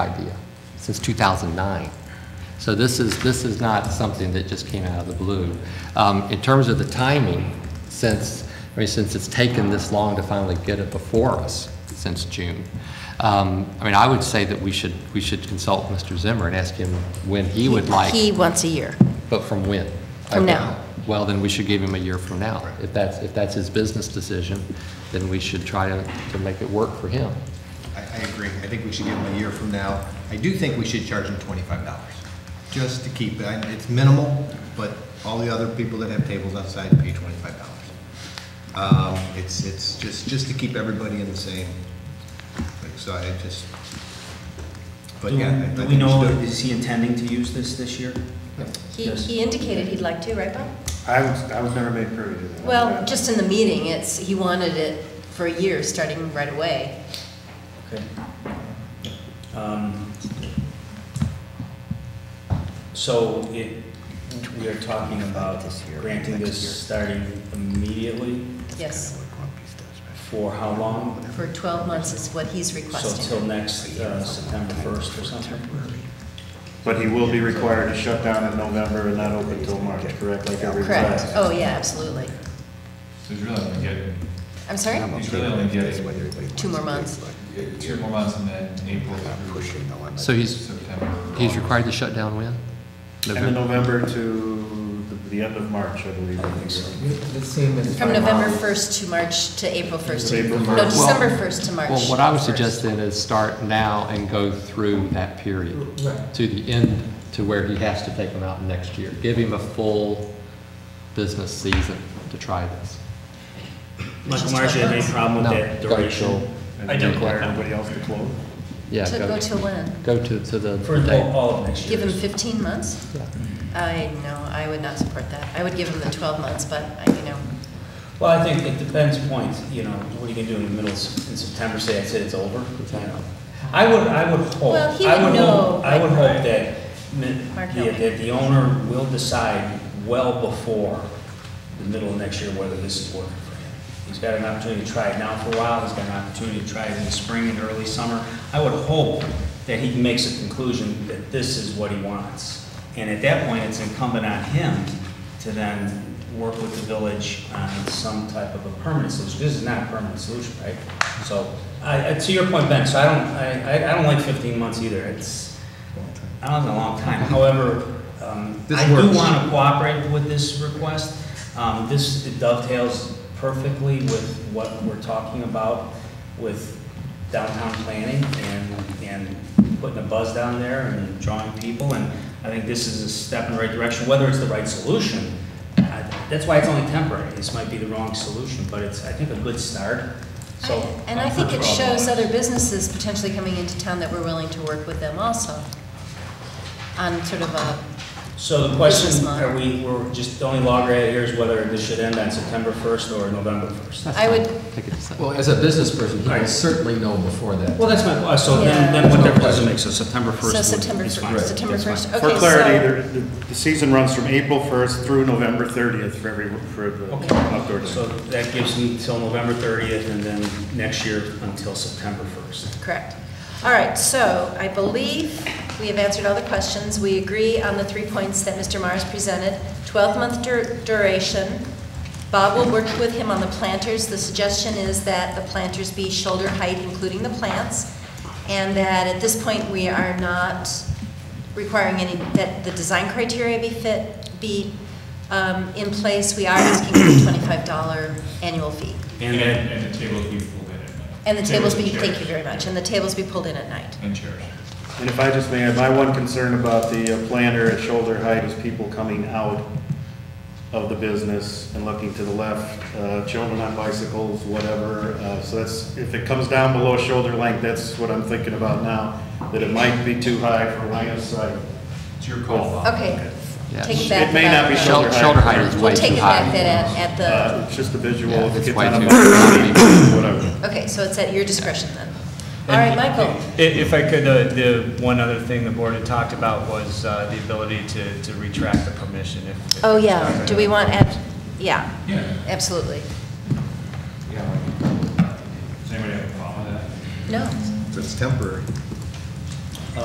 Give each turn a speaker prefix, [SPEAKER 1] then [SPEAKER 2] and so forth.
[SPEAKER 1] idea since 2009. So this is, this is not something that just came out of the blue. Um, In terms of the timing, since, I mean, since it's taken this long to finally get it before us since June, um, I mean, I would say that we should, we should consult Mr. Zimmer and ask him when he would like,
[SPEAKER 2] He once a year.
[SPEAKER 1] but from when?
[SPEAKER 2] From now.
[SPEAKER 1] Well, then we should give him a year from now. If that's, if that's his business decision, then we should try to, to make it work for him.
[SPEAKER 3] I, I agree. I think we should give them a year from now. I do think we should charge them twenty-five dollars, just to keep it. I- It's minimal, but all the other people that have tables outside pay twenty-five dollars. Um, it's, it's just, just to keep everybody in the same, like, so I just, but
[SPEAKER 4] Do
[SPEAKER 3] yeah. I- I
[SPEAKER 4] do
[SPEAKER 3] think
[SPEAKER 4] we know,
[SPEAKER 3] should do it.
[SPEAKER 4] is he intending to use this this year?
[SPEAKER 2] He,
[SPEAKER 4] Yes.
[SPEAKER 2] he indicated he'd like to, right, Bob?
[SPEAKER 5] I was, I was never made privy to that.
[SPEAKER 2] Well, just in the meeting, it's, he wanted it for a year, starting right away.
[SPEAKER 4] Okay. Um, So it, we are talking about granting this starting immediately
[SPEAKER 2] Yes,
[SPEAKER 4] for how long?
[SPEAKER 2] for 12 months is what he's
[SPEAKER 4] So till
[SPEAKER 2] requesting.
[SPEAKER 4] next uh, September 1st or something?
[SPEAKER 5] But he will be required to shut down in November and not open till March, correct, like every
[SPEAKER 2] Correct.
[SPEAKER 5] class?
[SPEAKER 2] Oh, yeah, absolutely.
[SPEAKER 6] So he's really only getting,
[SPEAKER 2] I'm sorry?
[SPEAKER 6] he's really only getting
[SPEAKER 2] Two more months.
[SPEAKER 6] two more months and then April through
[SPEAKER 1] So he's,
[SPEAKER 6] September.
[SPEAKER 1] He's required to shut down when?
[SPEAKER 5] And then November to the- the end of March, I believe. I think.
[SPEAKER 2] From November 1st to March, to April 1st.
[SPEAKER 5] April
[SPEAKER 2] No,
[SPEAKER 5] first.
[SPEAKER 2] December 1st to March.
[SPEAKER 1] Well, what I would
[SPEAKER 2] 1st.
[SPEAKER 1] suggest then is start now and go through that period to the end, to where he has to take them out next year. Give him a full business season to try this.
[SPEAKER 4] Michael Marsh, you have any problem with
[SPEAKER 1] No,
[SPEAKER 4] that
[SPEAKER 1] go
[SPEAKER 4] duration?
[SPEAKER 5] And
[SPEAKER 4] I don't-
[SPEAKER 5] require everybody else to close.
[SPEAKER 1] Yeah,
[SPEAKER 2] To
[SPEAKER 1] go,
[SPEAKER 2] go till when?
[SPEAKER 1] go to, to the
[SPEAKER 4] For all-
[SPEAKER 1] date.
[SPEAKER 4] all of next year?
[SPEAKER 2] Give him 15 months? I, no, I would not support that. I would give him the 12 months, but, I- you know,
[SPEAKER 4] Well, I think it depends point, you know, what are you gonna do in the middle, of- in September, say, I said it's over? You know. I would, I would hope.
[SPEAKER 2] Well, he
[SPEAKER 4] I
[SPEAKER 2] would
[SPEAKER 4] hope-
[SPEAKER 2] know,
[SPEAKER 4] I would
[SPEAKER 2] like-
[SPEAKER 4] hope that, mi-
[SPEAKER 2] Mark
[SPEAKER 4] yeah,
[SPEAKER 2] Helm.
[SPEAKER 4] that the owner will decide well before the middle of next year whether this is working for him. He's got an opportunity to try it now for a while, he's got an opportunity to try it in the spring and early summer. I would hope that he makes a conclusion that this is what he wants. And at that point, it's incumbent on him to then work with the village on some type of a permanent solution. This is not a permanent solution, right? So, I, I- to your point, Ben, so I don't, I, I- I don't like 15 months either. It's, I don't know, a long time. However, um,
[SPEAKER 3] This
[SPEAKER 4] I do
[SPEAKER 3] works.
[SPEAKER 4] want to cooperate with this request. Um, This dovetails perfectly with what we're talking about with downtown planning and, and putting a buzz down there and drawing people. And I think this is a step in the right direction, whether it's the right solution. I- That's why it's only temporary. This might be the wrong solution, but it's, I think, a good start. So.
[SPEAKER 2] I- And I
[SPEAKER 4] I'm
[SPEAKER 2] think
[SPEAKER 4] for
[SPEAKER 2] it
[SPEAKER 4] 12
[SPEAKER 2] shows
[SPEAKER 4] dollars.
[SPEAKER 2] other businesses potentially coming into town that we're willing to work with them also on sort of a,
[SPEAKER 4] So the
[SPEAKER 2] Business
[SPEAKER 4] question,
[SPEAKER 2] model.
[SPEAKER 4] are we, we're just, the only log right here is whether this should end on September 1st or November 1st.
[SPEAKER 2] I would,
[SPEAKER 1] Take it to second.
[SPEAKER 7] Well, as a business person, he
[SPEAKER 4] Right.
[SPEAKER 7] will certainly know before that.
[SPEAKER 4] Well, that's my, uh, so
[SPEAKER 2] Yeah.
[SPEAKER 4] then, then what difference does it make? So September 1st?
[SPEAKER 2] so
[SPEAKER 4] would-
[SPEAKER 2] September
[SPEAKER 4] is
[SPEAKER 2] 1st,
[SPEAKER 4] fine.
[SPEAKER 2] September
[SPEAKER 4] That's fine.
[SPEAKER 2] 1st.
[SPEAKER 5] For
[SPEAKER 2] Okay,
[SPEAKER 5] clarity,
[SPEAKER 2] so-
[SPEAKER 5] there- the, the season runs from April 1st through November 30th for every, for the outdoor
[SPEAKER 4] Okay,
[SPEAKER 5] day.
[SPEAKER 4] so that gives me till November 30th and then next year until September 1st.
[SPEAKER 2] Correct. All right, so I believe we have answered all the questions. We agree on the three points that Mr. Mars presented. 12-month dur- duration. Bob will work with him on the planters. The suggestion is that the planters be shoulder height, including the plants, and that at this point, we are not requiring any, that the design criteria be fit, be um, in place. We are asking for a $25 annual fee.
[SPEAKER 4] And
[SPEAKER 6] And,
[SPEAKER 4] then,
[SPEAKER 6] and the tables be pulled in at night.
[SPEAKER 2] And the tables be,
[SPEAKER 6] chairs.
[SPEAKER 2] thank you very much, and the tables be pulled in at night.
[SPEAKER 6] And chairs.
[SPEAKER 5] And if I just may, add, my one concern about the uh, planter at shoulder height is people coming out of the business and looking to the left, uh, children on bicycles, whatever. Uh, So that's, if it comes down below shoulder length, that's what I'm thinking about now, that it might be too high for line of sight.
[SPEAKER 6] It's your call.
[SPEAKER 2] Okay,
[SPEAKER 1] Yeah.
[SPEAKER 2] take it back.
[SPEAKER 5] It may not be
[SPEAKER 2] about-
[SPEAKER 1] Shel-
[SPEAKER 5] shoulder
[SPEAKER 1] Shoulder,
[SPEAKER 5] height.
[SPEAKER 1] height is
[SPEAKER 2] We'll
[SPEAKER 1] way
[SPEAKER 2] take
[SPEAKER 1] too
[SPEAKER 2] it back
[SPEAKER 1] high.
[SPEAKER 2] then at, at
[SPEAKER 5] Uh,
[SPEAKER 2] the,
[SPEAKER 5] It's just a visual.
[SPEAKER 1] Yeah,
[SPEAKER 5] if it
[SPEAKER 1] it's
[SPEAKER 5] gets
[SPEAKER 1] way
[SPEAKER 5] on
[SPEAKER 1] too
[SPEAKER 5] a-
[SPEAKER 1] high.
[SPEAKER 5] Whatever.
[SPEAKER 2] okay, so it's at your discretion then. All right,
[SPEAKER 8] And-
[SPEAKER 2] Michael,
[SPEAKER 8] i- If I could, uh, the, one other thing the board had talked about was uh, the ability to, to retract the permission if. if
[SPEAKER 2] oh
[SPEAKER 8] it's
[SPEAKER 2] yeah,
[SPEAKER 8] not
[SPEAKER 2] do we
[SPEAKER 8] available.
[SPEAKER 2] want, ab- yeah,
[SPEAKER 6] Yeah.
[SPEAKER 2] absolutely.
[SPEAKER 6] Yeah. Does anybody have a problem with that?
[SPEAKER 2] No,
[SPEAKER 3] It's temporary.